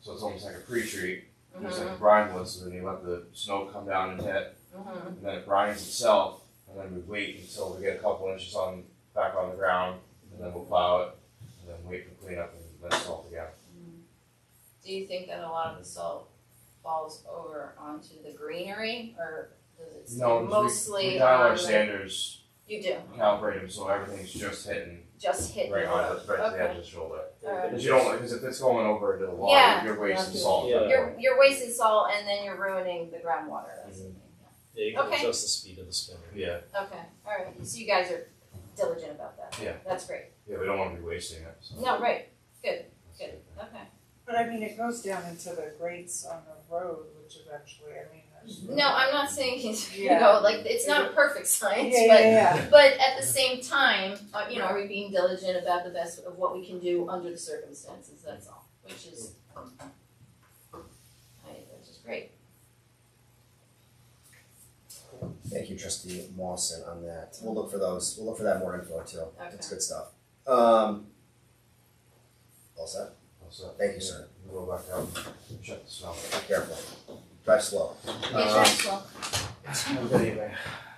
So it's almost like a pre-treat, just Mhm, like the brine would. So then you let the snow come down and hit, mhm. and then it brines itself, and then we wait until we get a couple inches on back on the ground, and then we'll plow it, and then wait for cleanup and then salt again. Do you think that a lot of the salt falls over onto the greenery, or does it stay No, mostly we, we on dial our the- standards, You do calibrate them so everything's just hitting just hit right the on road. the, right to the edge okay. of the shoulder. Alright. Because you don't because if it's going over into the water, Yeah, you're wasting that's it. salt. at that Yeah. You're you're wasting salt and then you're ruining the groundwater. That's the Mm-hmm. thing, Yeah, you can Okay. adjust the speed of the spinner. point. Yeah, yeah. Okay. All right. So you guys are diligent about that. Yeah. That's great. yeah, we don't want to be wasting it. So No, right. that's good. Okay. But I mean, it goes down into the grates on the road, which eventually, I mean, there's. No, I'm not saying it's you Yeah. know like it's not a perfect Yeah, science, but yeah, yeah. But at the same time, uh, you know, are we being diligent about the best of what we can do under the circumstances, that's all, which is, I, which is great. Thank you, Trustee Mawson, on that. We'll look for those. We'll look for that more info too. That's Okay. good stuff. Um, all set. Also, Thank you, sir. We'll go back out and check the smell. Be careful. Drive slow. Yeah, Uh, sure, well, Have a good evening.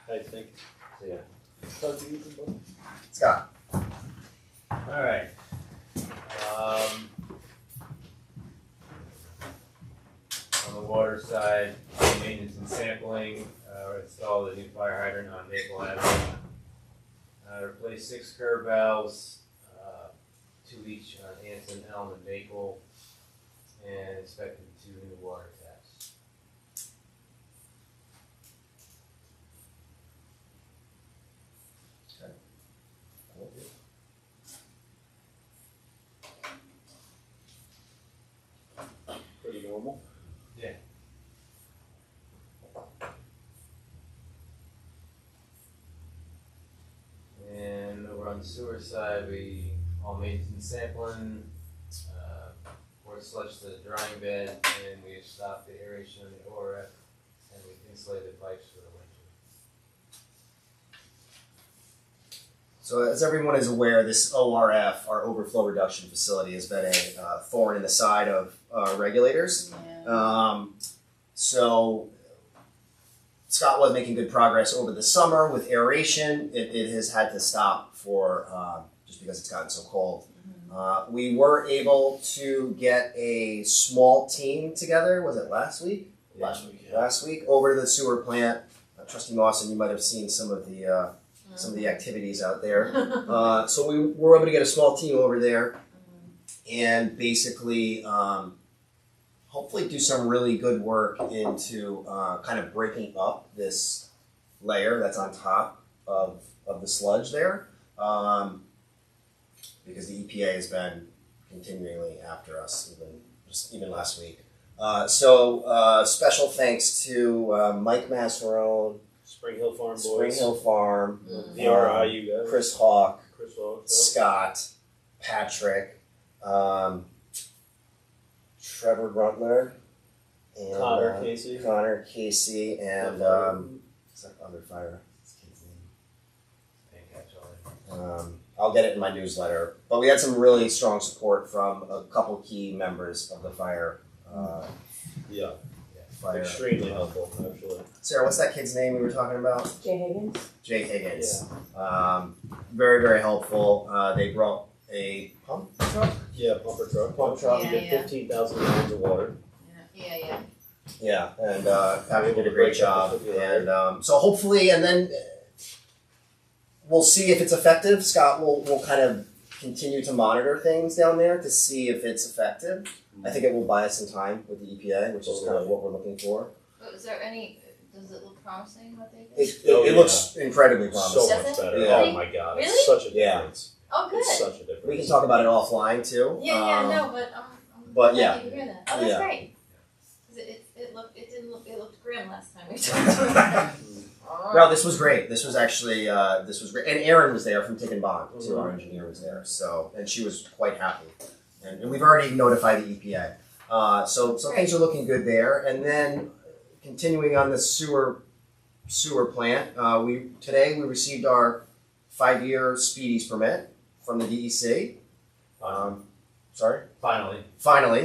I think. See ya. Scott. Alright. Um, on the water side, uh, maintenance and sampling, uh, we installed a new fire hydrant on Maple Avenue. Uh, replaced six curb valves, uh, two each on Anson, Elm, and Maple, and inspected two new water taps. Pretty normal. And over on the sewer side, we all made some sampling, uh, poured sludge to the drying bed, and we have stopped the aeration of the ORF, and we've insulated pipes for the winter. So, as everyone is aware, this ORF, our overflow reduction facility, has been a uh, thorn in the side of uh, regulators. yeah. Um, so Scott was making good progress over the summer with aeration. It, it has had to stop for uh, just because it's gotten so cold. Uh, we were able to get a small team together. Was it last week? Last week. Last week over to the sewer plant. Uh, Trustee Mawson, you might have seen some of the uh, some of the activities out there. Uh, so we were able to get a small team over there and basically um, hopefully do some really good work into uh, kind of breaking up this layer that's on top of, of the sludge there um, because the EPA has been continually after us even just even last week. Uh, so uh, special thanks to uh, Mike Masserone, Spring Hill Farm Spring Boys. Hill Farm, Mm. The RIU guys. Chris Hawk, Chris Wallace. Scott, Patrick, um, Trevor Gruntler, and Connor uh, Casey. Connor Casey, and um, what's that other fire? What's his kid's name? Thank you, that's all I- Um, I'll get it in my newsletter. But we had some really strong support from a couple key members of the fire. Uh, yeah. fire. Extremely helpful, actually. Sarah, what's that kid's name we were talking about? Jay Higgins? Jay Higgins. Um, very, very helpful. Uh, they brought a pump truck. Yeah, pumper truck. Pump truck. You get Yeah, yeah. fifteen thousand gallons of water. Yeah, yeah, Yeah, and uh, Patrick did a Break great up job, with you, right? and um, so hopefully, and then uh, we'll see if it's effective. Scott will will kind of continue to monitor things down there to see if it's effective. I think it will buy us some time with the EPA, which is kind of what we're looking for. but is there any, does it look promising what they It, did? it, Oh, it yeah. looks incredibly promising. So much better. Yeah. Oh my god. Really? It's such a Yeah. difference. Oh, It's good, such a difference. we can talk about it offline too. yeah, yeah, Um, no, but I'm, I'm but glad to hear that, oh, that's Yeah. great. 'Cause it, it, it looked, it didn't look, it looked grim last time we talked Um, about that. No, this was great. This was actually uh, this was great, and Erin was there from Tick and Bond. too. Our engineer was there, so and she was quite happy. And, and we've already notified the EPA, uh, so so things are looking good there. And then continuing on the sewer sewer plant, uh, we today we received our five year speedies permit from the DEC. E Um, sorry, Finally, finally.